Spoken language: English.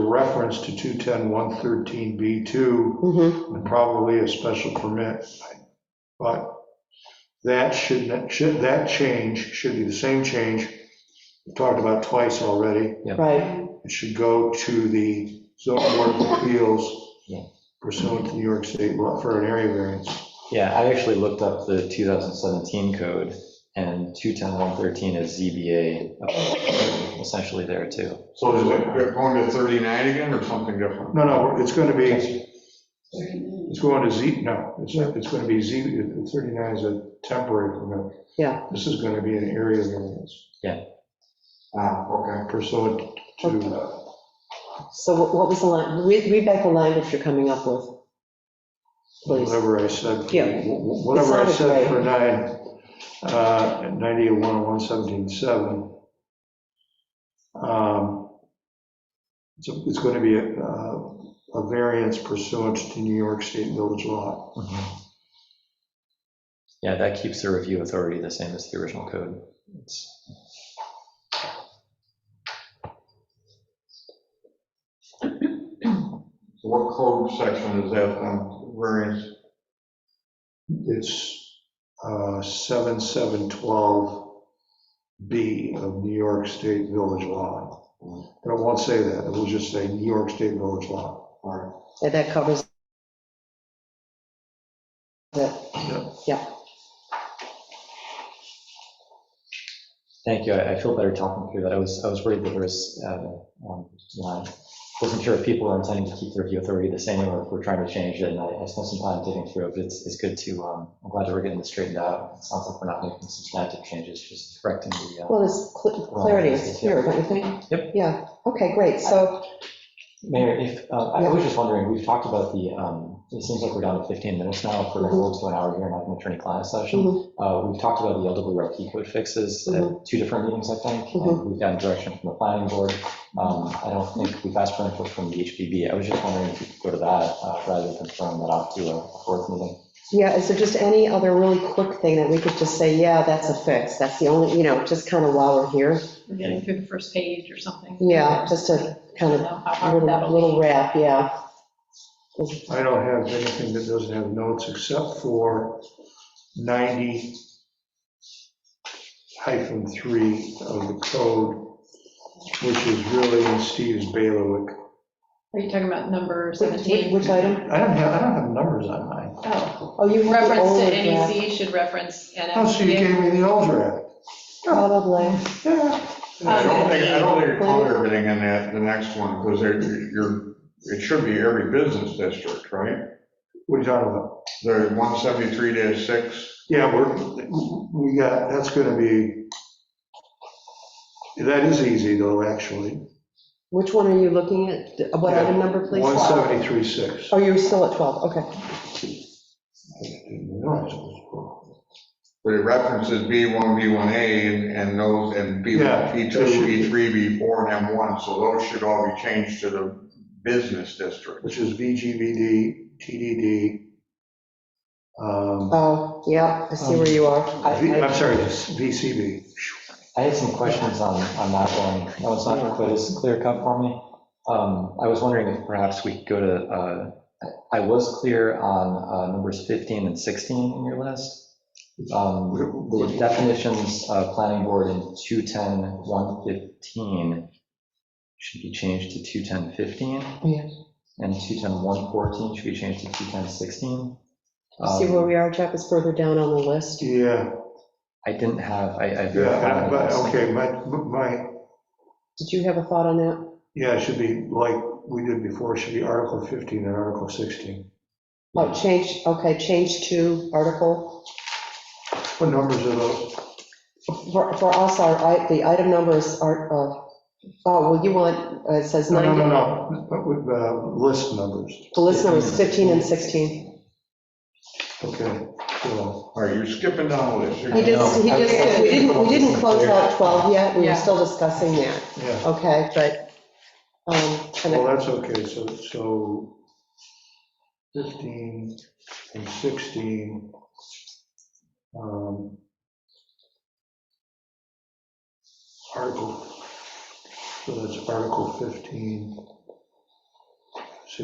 reference to 210-113B2 Mhm. and probably a special permit. But that should, that should, that change should be the same change we talked about twice already. Right, It should go to the zoning board of appeals Yeah. pursuant to New York State law for an area variance. Yeah, I actually looked up the 2017 code, and 210113 is ZBA, uh, essentially there too. So is it they're going to 39 again or something different? No, no, it's going to be, Thirty-nine. it's going to Z, no, it's, it's going to be Z, 39 is a temporary permit. Yeah. This is going to be an area variance Ah, okay. pursuant to uh, so what what was the line, read read back the language you're coming up with, please. Whatever I said, for- Yeah. wh- wh- whatever I It sounded said for nine, uh, 9810177. um, It's, a- it's going to be a, uh, a variance pursuant to New York State Village law. Mhm. Yeah, that keeps the review authority the same as the original code. It's- So what code section is that, um, variance? It's uh, 7712B of New York State Village law. But it won't say that, it will just say New York State Village law. All right. And that covers it. Thank you, I I feel better talking through that. I was, I was worried that there was, uh, um, you know, I wasn't sure if people are intending to keep the review authority the same or if we're trying to change it, and I I spent some time digging through it, but it's, it's good to, um, I'm glad that we're getting this straightened out. It sounds like we're not making substantive changes, just correcting the. uh, Well, it's cl- clarity, it's clear, don't you think? Yep. Yeah, okay, great, so, Mayor, if, uh, I was just wondering, we've talked about the, um, it seems like we're down to 15 minutes now for a roll to an hour here and have an attorney-client session. Uh, We've talked about the LWRP code fixes at two different meetings, I think. and Mhm. We've gotten direction from the planning board. Um, I don't think we've asked for input from the HPB. I was just wondering if you could go to that uh, rather than confirm that out to a fourth meeting. yeah, is there just any other really quick thing that we could just say, yeah, that's a fix, that's the only, you know, just kind of while we're here? We're getting through the first page or something. Yeah, just a kind of How hard little that'll little be. wrap, yeah. I don't have anything that doesn't have notes except for 90 hyphen 3 of the code, which is really in Steve's bailiwick. Are you talking about number Which- Which 17? which item? I don't have, I don't have numbers on mine. Oh, Oh, you have the reference old to draft, NEC should reference Oh, so you NFPA. gave me the old draft. probably. Yeah. I Yeah. don't think, I don't think it covers everything in that, the next one, because you're, it should be every business district, right? What are you talking about? The 173-6, Yeah, we're, we got, that's going to be, that is easy though, actually. Which one are you looking at? What item number, please? 173.6. Oh, you're still at 12, okay. I didn't realize it was- but it references B1, B1A, and- and those, and Yeah, B1, B2, that should be- B3, B4, and M1, so those should all be changed to the business district. which is VGVD, TDD. um, Oh, yeah, I see where you are. V- I'm sorry, it's VCB. I had some questions on, on that one. No, it's not quite as clear cut for me. Um, I was wondering if perhaps we could go to, uh, I was clear on uh, numbers 15 and 16 in your list. Um, The definitions, uh, planning board in 210, 115 should be changed to 210, 15. Yeah. And 210, 114 should be changed to 210, 16. Um, See where we are, Jeff, is further down on the list. Yeah, I didn't have, I, I yeah, verified. but, this. okay, my, my, Did you have a thought on that? yeah, it should be like we did before, it should be Article 15 and Article 16. Oh, change, okay, change to article. What numbers are those? For for us, our, i- the item numbers are, uh, oh, well, you want, uh, it says No, no, no, 90, no, but with, uh, list numbers, the list number is 15 and 16. okay. so, All right, you're skipping down the list. You're- He just, he No, I- just, we didn't, we didn't close out 12 yet, we were Yeah. still discussing that, Yeah, okay, but, um, and well, I- that's okay, so, so 15 and 16. um, Article, so that's Article 15.